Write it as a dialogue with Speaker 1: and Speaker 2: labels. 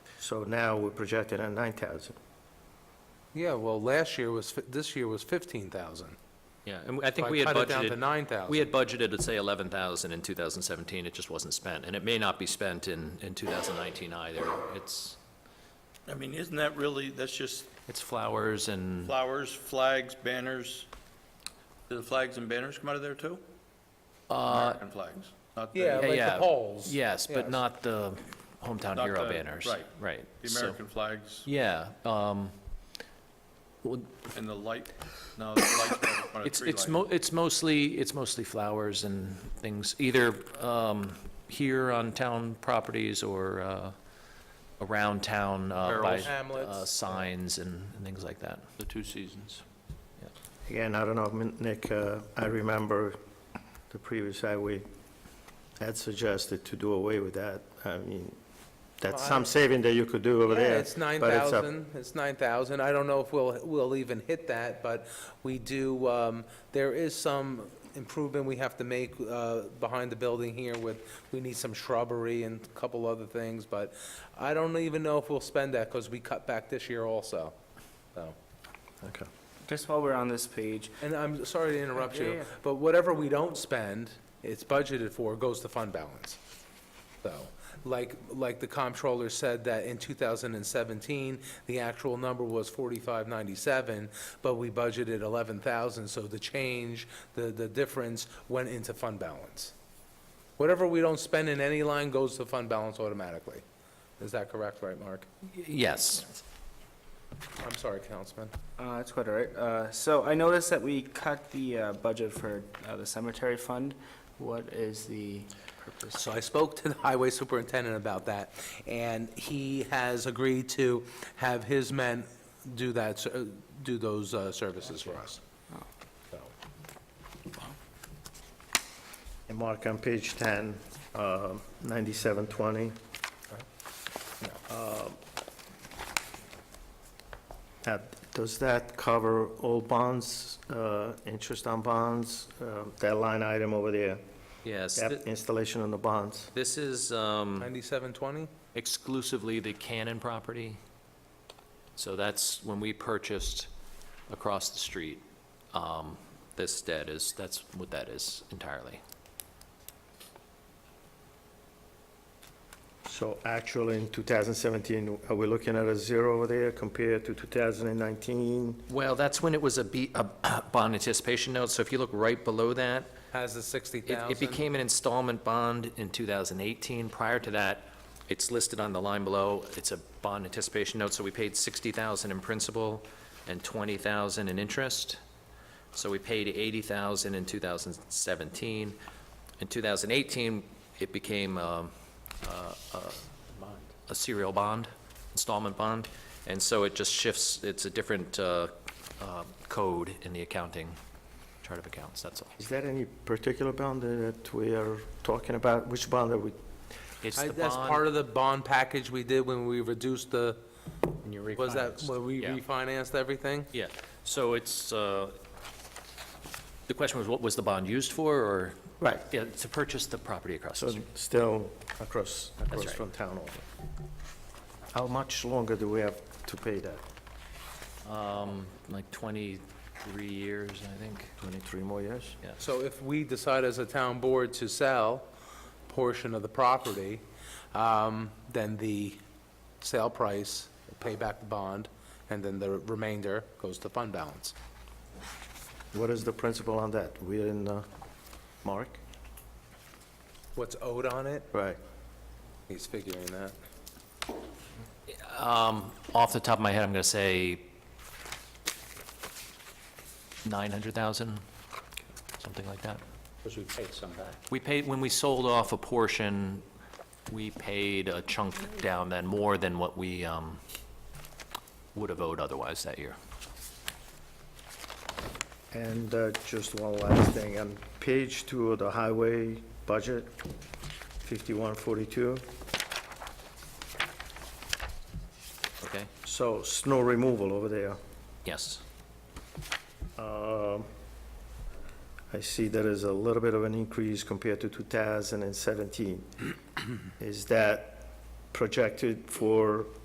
Speaker 1: So now we're projected at 9,000.
Speaker 2: Yeah, well, last year was, fi- this year was 15,000.
Speaker 3: Yeah, and I think
Speaker 2: So
Speaker 3: we had
Speaker 2: I cut it down to
Speaker 3: budgeted,
Speaker 2: 9,000.
Speaker 3: we had budgeted, let's say, 11,000 in 2017, it just wasn't spent, and it may not be spent in, in 2019 either. It's,
Speaker 4: I mean, isn't that really, that's just
Speaker 3: it's flowers and,
Speaker 4: flowers, flags, banners? Do the flags and banners come out of there too?
Speaker 3: uh,
Speaker 4: American flags, not the...
Speaker 2: Yeah, like the
Speaker 3: yeah.
Speaker 2: polls.
Speaker 3: yes,
Speaker 2: Yes.
Speaker 3: but not the hometown
Speaker 4: Not
Speaker 3: hero
Speaker 4: the-
Speaker 3: banners.
Speaker 4: right.
Speaker 3: Right.
Speaker 4: The
Speaker 3: so-
Speaker 4: American flags
Speaker 3: Yeah, um, well,
Speaker 4: and the light, no, the lights, don't come out of
Speaker 3: it's,
Speaker 4: tree
Speaker 3: it's
Speaker 4: lights.
Speaker 3: mo, it's mostly, it's mostly flowers and things, either, um, here on town properties or, uh, around town, uh, by,
Speaker 2: Barrels. Hamlets.
Speaker 3: uh, signs and and things like that.
Speaker 5: the two seasons.
Speaker 1: Again, I don't know, Min- Nick, uh, I remember the previous highway had suggested to do away with that. I mean, that's
Speaker 2: Well, I-
Speaker 1: some saving that you could do over
Speaker 2: Yeah,
Speaker 1: there.
Speaker 2: it's
Speaker 1: but up-
Speaker 2: 9,000, it's 9,000. I don't know if we'll, we'll even hit that, but we do, um, there is some improvement we have to make uh, behind the building here with, we need some shrubbery and a couple other things, but I don't even know if we'll spend that because we cut back this year also, so.
Speaker 1: Okay.
Speaker 6: Just while we're on this page,
Speaker 2: And I'm sorry to interrupt
Speaker 6: Yeah,
Speaker 2: you,
Speaker 6: yeah.
Speaker 2: but whatever we don't spend, it's budgeted for, goes to fund balance. So, like, like the comptroller said that in 2017, the actual number was 4597, but we budgeted 11,000, so the change, the, the difference went into fund balance. Whatever we don't spend in any line goes to fund balance automatically. Is that correct, right, Mark?
Speaker 3: Yes.
Speaker 2: I'm sorry, Councilman.
Speaker 6: uh, it's quite all right. Uh, so I noticed that we cut the, uh, budget for, uh, the cemetery fund. What is the purpose?
Speaker 2: So I spoke to the highway superintendent about that, and he has agreed to have his men do that, ser- do those uh, services for us. So.
Speaker 1: And Mark, on page 10, uh, 9720. Uh, uh, Does that cover all bonds, uh, interest on bonds, uh, that line item over there,
Speaker 3: Yes,
Speaker 1: that
Speaker 3: thi-
Speaker 1: installation on the bonds?
Speaker 3: this is um,
Speaker 2: 9720?
Speaker 3: exclusively the Cannon property. So that's when we purchased across the street, um, this debt is, that's what that is entirely.
Speaker 1: So actually, in 2017, are we looking at a zero over there compared to 2019?
Speaker 3: Well, that's when it was a B- a bond anticipation note, so if you look right below that,
Speaker 2: Has the
Speaker 3: It,
Speaker 2: 60,000?
Speaker 3: it became an installment bond in 2018. Prior to that, it's listed on the line below, it's a bond anticipation note, so we paid 60,000 in principal and 20,000 in interest. So we paid 80,000 in 2017. In 2018, it became um, uh, a- a serial bond, installment bond, and so it just shifts, it's a different uh, uh, code in the accounting, chart of accounts, that's all.
Speaker 1: Is there any particular bond that we are talking about? Which bond are we,
Speaker 3: It's
Speaker 2: I-
Speaker 3: the
Speaker 2: That's
Speaker 3: bond-
Speaker 2: part of the bond package we did when we reduced the,
Speaker 3: And you
Speaker 2: was that,
Speaker 3: refinanced.
Speaker 2: when we
Speaker 3: Yeah.
Speaker 2: refinanced everything?
Speaker 3: Yeah, so it's, uh, the question was, what was the bond used for, or?
Speaker 1: Right.
Speaker 3: Yeah, to purchase the property across the
Speaker 1: so
Speaker 3: street.
Speaker 1: still across, across
Speaker 3: right.
Speaker 1: from town over? How much longer do we have to pay that?
Speaker 3: Um, Like 23 years, I think.
Speaker 1: 23 more years?
Speaker 3: Yeah.
Speaker 2: So if we decide as a town board to sell portion of the property, um, then the sale price, pay back the bond, and then the remainder goes to fund balance.
Speaker 1: What is the principle on that? We're in, uh, Mark?
Speaker 2: What's owed on it?
Speaker 1: Right.
Speaker 2: He's figuring that.
Speaker 3: Um, Off the top of my head, I'm going to say 900,000, something like that.
Speaker 5: Because we paid some back.
Speaker 3: We paid, when we sold off a portion, we paid a chunk down then, more than what we um, would have owed otherwise that year.
Speaker 1: And uh, just one last thing, on page two of the highway budget, 5142,
Speaker 3: Okay?
Speaker 1: so snow removal over there.
Speaker 3: Yes.
Speaker 1: Um, I see there is a little bit of an increase compared to 2017. Is that projected for